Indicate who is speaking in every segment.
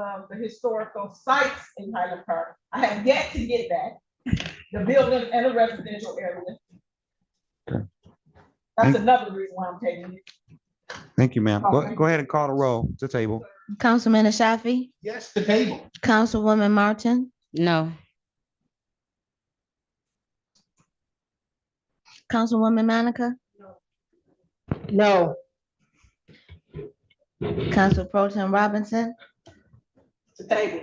Speaker 1: um, the historical sites in Highland Park. I have yet to get that, the building and the residential area.
Speaker 2: Okay.
Speaker 1: That's another reason why I'm taking it.
Speaker 2: Thank you, ma'am. Go,
Speaker 1: Okay.
Speaker 2: go ahead and call the roll to table.
Speaker 3: Councilman Ashafi,
Speaker 4: Yes, the table.
Speaker 3: Councilwoman Martin,
Speaker 5: No.
Speaker 3: Councilwoman Manica,
Speaker 5: No.
Speaker 3: Council Pro Tem Robinson,
Speaker 1: To table.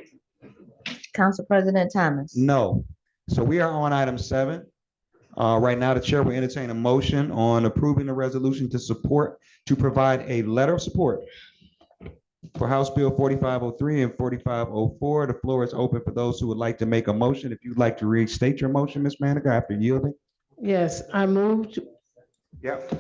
Speaker 3: Council President Thomas.
Speaker 2: No. So we are on item seven. Uh, right now, the chair will entertain a motion on approving the resolution to support, to provide a letter of support for House Bill forty-five oh three and forty-five oh four. The floor is open for those who would like to make a motion. If you'd like to restate your motion, Ms. Manica, after yielding.
Speaker 6: Yes, I moved,
Speaker 2: Yep.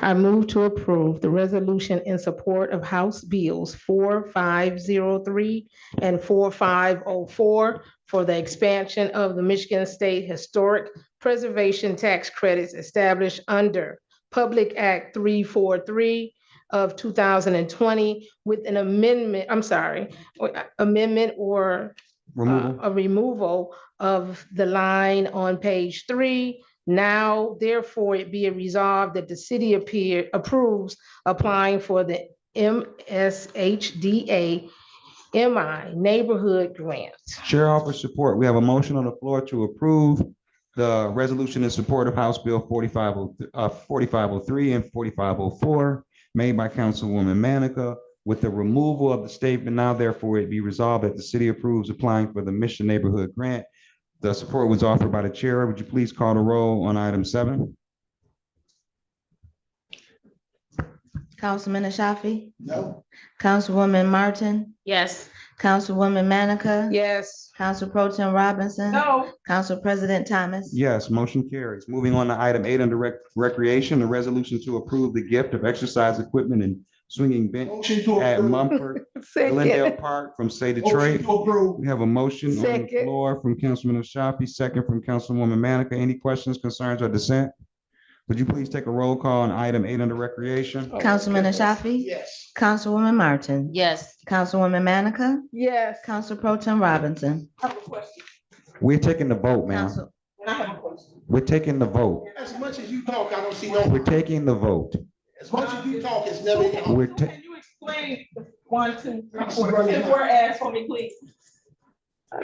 Speaker 6: I move to approve the resolution in support of House Bills four five zero three and four five oh four for the expansion of the Michigan State Historic Preservation Tax Credits established under Public Act three four three of two thousand and twenty with an amendment, I'm sorry, amendment or uh,
Speaker 2: Removal.
Speaker 6: a removal of the line on page three. Now therefore it be it resolved that the city appear, approves applying for the MSHDA MI Neighborhood Grant.
Speaker 2: Chair offers support. We have a motion on the floor to approve the resolution in support of House Bill forty-five oh, uh, forty-five oh three and forty-five oh four made by Councilwoman Manica with the removal of the statement now therefore it be resolved that the city approves applying for the Mission Neighborhood Grant. The support was offered by the chair. Would you please call the roll on item seven?
Speaker 3: Councilman Ashafi,
Speaker 4: No.
Speaker 3: Councilwoman Martin,
Speaker 6: Yes.
Speaker 3: Councilwoman Manica,
Speaker 6: Yes.
Speaker 3: Council Pro Tem Robinson,
Speaker 1: No,
Speaker 3: Council President Thomas.
Speaker 2: Yes, motion carries. Moving on to item eight under rec- recreation, the resolution to approve the gift of exercise equipment and swinging bench
Speaker 4: Motion to
Speaker 2: at
Speaker 4: approve.
Speaker 2: Mumford Glendale Park from Say
Speaker 4: Motion
Speaker 2: Detroit.
Speaker 4: to approve.
Speaker 2: We have a motion on the
Speaker 6: Second.
Speaker 2: floor from Councilman Ashafi, second from Councilwoman Manica. Any questions, concerns, or dissent? Would you please take a roll call on item eight under recreation?
Speaker 3: Councilman Ashafi,
Speaker 4: Yes.
Speaker 3: Councilwoman Martin,
Speaker 5: Yes.
Speaker 3: Councilwoman Manica,
Speaker 6: Yes.
Speaker 3: Council Pro Tem Robinson.
Speaker 1: I have a question,
Speaker 2: We're taking the vote, ma'am.
Speaker 3: Council,
Speaker 1: and I have a question.
Speaker 2: We're taking the vote.
Speaker 4: As much as you talk, I don't see no,
Speaker 2: We're taking the vote.
Speaker 4: as much as you talk, it's never.
Speaker 1: Can
Speaker 2: We're
Speaker 1: you-
Speaker 2: ta-
Speaker 1: Can you explain the one, two, three,
Speaker 4: I'm
Speaker 1: four,
Speaker 4: struggling.
Speaker 1: and whereas for me, please?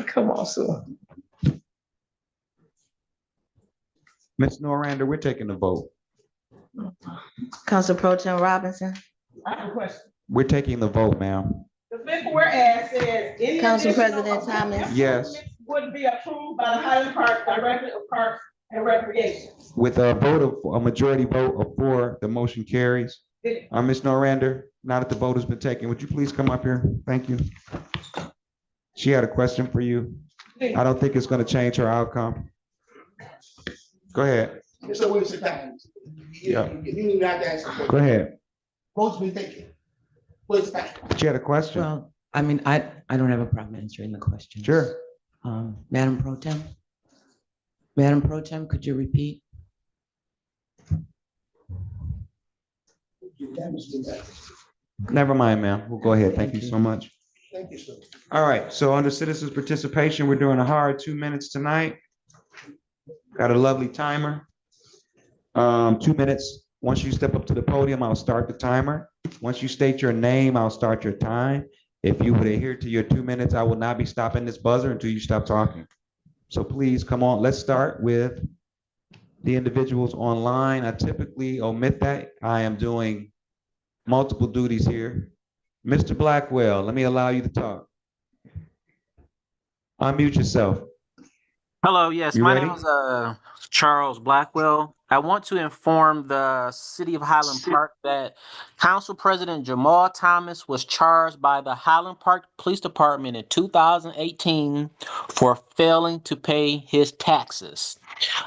Speaker 6: Come on, Sue.
Speaker 2: Ms. Norander, we're taking the vote.
Speaker 3: Council Pro Tem Robinson,
Speaker 1: I have a question.
Speaker 2: We're taking the vote, ma'am.
Speaker 1: The fifth whereas says. any
Speaker 3: Council
Speaker 1: additional
Speaker 3: President Thomas.
Speaker 2: Yes.
Speaker 1: improvements Would be approved by the Highland Park Director of Parks and Recreation.
Speaker 2: With a vote of, a majority vote of four, the motion carries.
Speaker 1: Did
Speaker 2: Uh, Ms. Norander, now that the vote has been taken, would you please come up here? Thank you. She had a question for you. I don't think it's gonna change her outcome. Go ahead,
Speaker 4: It's a waste of time.
Speaker 2: Yeah.
Speaker 4: You need not to ask. a question.
Speaker 2: go ahead.
Speaker 4: Most be thinking. Waste of time.
Speaker 2: She had a question.
Speaker 7: Well, I mean, I, I don't have a problem answering the question.
Speaker 2: Sure.
Speaker 7: Um, Madam Pro Tem? Madam Pro Tem, could you repeat?
Speaker 4: You damaged the message.
Speaker 2: Never mind, ma'am. We'll go ahead. Thank you so much.
Speaker 4: Thank you, sir.
Speaker 2: All right, so under citizens' participation, we're doing a hard two minutes tonight. Got a lovely timer. Um, two minutes. Once you step up to the podium, I'll start the timer. Once you state your name, I'll start your time. If you would adhere to your two minutes, I will not be stopping this buzzer until you stop talking. So please, come on, let's start with the individuals online. I typically omit that. I am doing multiple duties here. Mr. Blackwell, let me allow you to talk. Unmute yourself.
Speaker 8: Hello, yes,
Speaker 2: You
Speaker 8: my
Speaker 2: ready?
Speaker 8: name is uh Charles Blackwell. I want to inform the city of Highland Park that Council President Jamal Thomas was charged by the Highland Park Police Department in 2018 for failing to pay his taxes.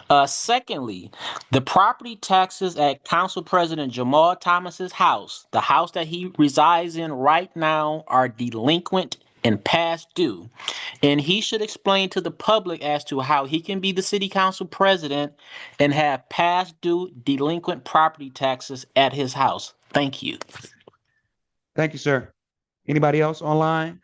Speaker 8: Uh, secondly, the property taxes at Council President Jamal Thomas's house, the house that he resides in right now, are delinquent and past due. And he should explain to the public as to how he can be the city council president and have past due delinquent property taxes at his house. Thank you.
Speaker 2: Thank you, sir. Anybody else online?